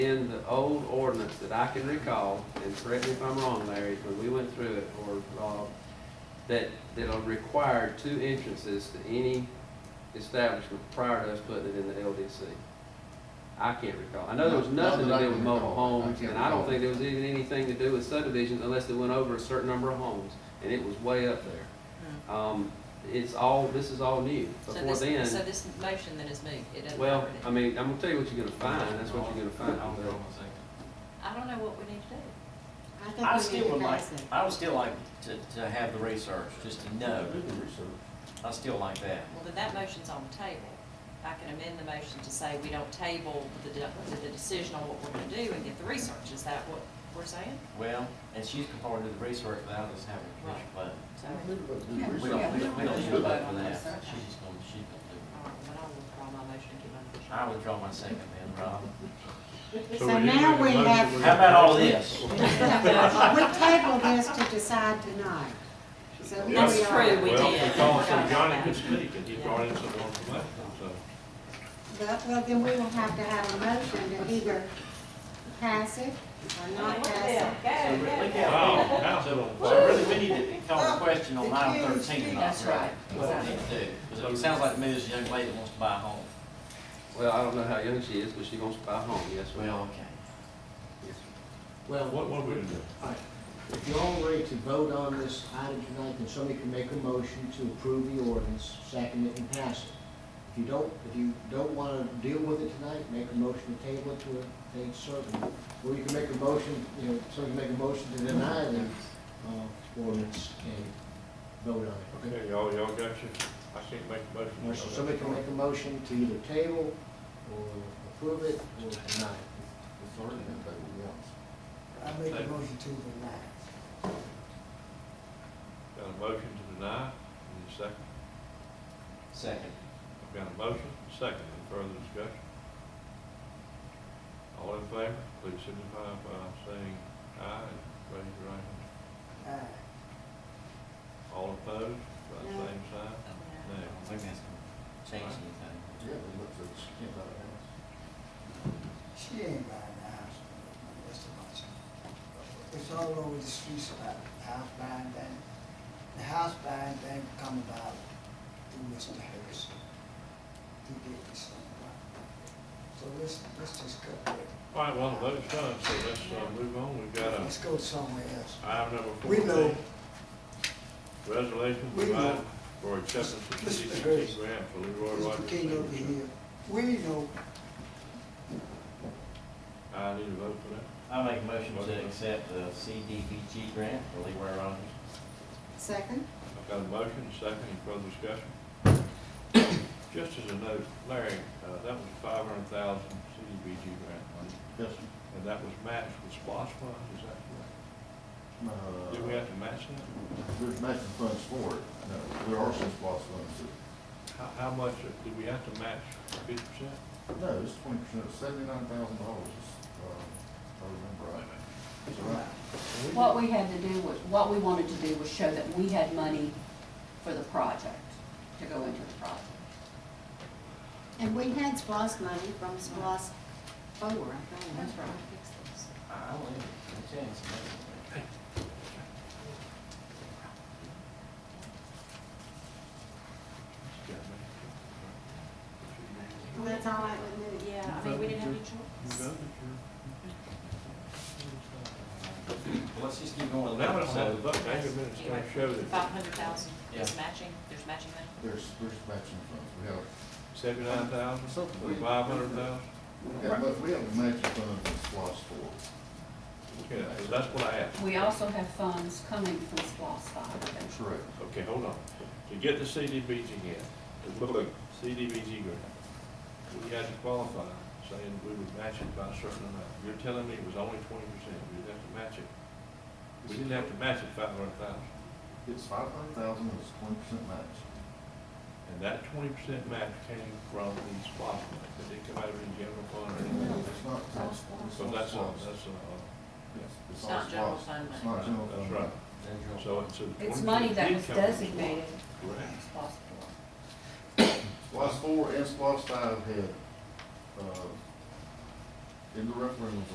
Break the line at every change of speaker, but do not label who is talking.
in the old ordinance that I can recall, and correct me if I'm wrong, Larry, when we went through it, or Rob, that, that'll require two entrances to any establishment prior to us putting it in the LDC. I can't recall. I know there was
Not- not
nothing to
that I
do with
can
mobile
recall. I
homes,
can't
and I don't
recall.
think there was even anything to do with subdivisions unless they went over a certain number of homes, and it was way up there. Um, it's all, this is all new.
So
Before
this,
then.
so this motion that is moved, it doesn't
Well, um,
cover it.
I mean, I'm gonna tell you what you're gonna find, that's what you're gonna find.
Hold on
out
a second.
I don't know what we need to do.
I
I think
still
we need
would
to
like,
pass it.
I would still like to, to have the research, just to know. I still like that.
Well, then that motion's on the table. I can amend the motion to say we don't table the, de- the decision on what we're gonna do and get the research. Is that what we're saying?
Well, and she's comfortable with the research without us having a commission vote.
So,
We don't, we don't, we don't need a vote for that. She's just gonna, she's gonna
all right, then I'll withdraw my motion and give my
do
motion.
it. I withdraw my second then, Rob.
So now we have-
How about all this?
We table this to decide tonight. So here we
That's
are.
true, we did.
Well, we called
Forgot
some
about
Johnny
that.
could speak, and he brought in some more information, so.
But, well, then we will have to have a motion to either pass it or not pass it.
So re- look
Wow,
at-
now it's on.
So really, we need to call the question on item thirteen tonight.
That's right.
What we need to do, because it sounds like me, this young lady that wants to buy a home.
Well, I don't know how young she is, but she wants to buy a home, yes, well,
Well, okay.
yes.
Well,
What, what we gonna do?
if you're all ready to vote on this item tonight, then somebody can make a motion to approve the ordinance, second it, and pass it. If you don't, if you don't want to deal with it tonight, make a motion to table it to a date certain. Or you can make a motion, you know, somebody can make a motion to deny the uh, ordinance and vote on it.
Okay, y'all, y'all got your, I can't make a motion.
Or Somebody can make a motion to either table or approve it or deny it.
I make a motion to deny.
Got a motion to deny, and a second.
Second.
I've got a motion, a second, any further discussion? All in favor, please signify by saying aye, and raise your right hand.
Aye.
All opposed, by the
No.
same sign,
I don't think that's gonna change anything.
She ain't buying the house. That's the much. It's all over the streets about the house buying thing. The house buying thing come about through Mr. Harris. He did this thing. So let's, let's just go,
All right, well, the vote's done, so let's uh, move on. We've got uh,
let's go somewhere else.
item number
We know.
fourteen. Resolution
We know.
providing for acceptance of
Mr.
CDBG
Harris.
grant for Leroy
Mr.
Rogers.
King over
Senior.
here, we know
I need a vote for that.
I make a motion to accept the CDBG grant for Leroy Rogers.
Second?
I've got a motion, a second, any further discussion? Just as a note, Larry, uh, that was five hundred thousand CDBG grant money,
Yes,
and that was matched with SPOS funds, is that correct?
uh,
Did we have to match that?
There's matching funds for it, no, there are some SPOS funds,
How, how much, uh, did we have to match fifty percent?
but, no, it's twenty percent, seventy-nine thousand dollars, uh, I remember right. Is that right?
What we had to do was, what we wanted to do was show that we had money for the project, to go into the project.
And we had SPOS money from SPOS four, I think.
That's right.
I don't think it's gonna change anything.
And That's all I would do.
Yeah, I mean, we didn't have any choice.
Well, let's just keep going
Well,
with
now
that. uh,
it's not the
So,
vote, now your minutes don't show
Five
that
hundred thousand is
Yeah.
matching, there's matching money?
There's, there's matching funds, we have,
seventy-nine thousand,
Something.
or five hundred thousand?
we have, but we have matching funds in SPOS for
Okay, that's what I asked.
We also have funds coming from SPOS five.
it, correct.
Okay, hold on. To get the CDBG grant, the blue CDBG grant, we had to qualify, saying we would match it by a certain amount. You're telling me it was only twenty percent, we'd have to match it. We didn't have to match it five hundred thousand.
It's five hundred thousand, it's twenty percent match.
And that twenty percent match came from the SPOS money, it didn't come out of the general fund or anything.
It's not, it's, it's
So
all
that's, a-
SPOS.
that's, a-
Yes,
It's
all
not general
SPOS.
fund
It's
money.
not general fund.
that's right.
then you'll-
So it's a.
It's
20%
money that
did
was
come from SPOS.
designated
Correct.
from SPOS four.
SPOS four and SPOS five had, uh, in the referendum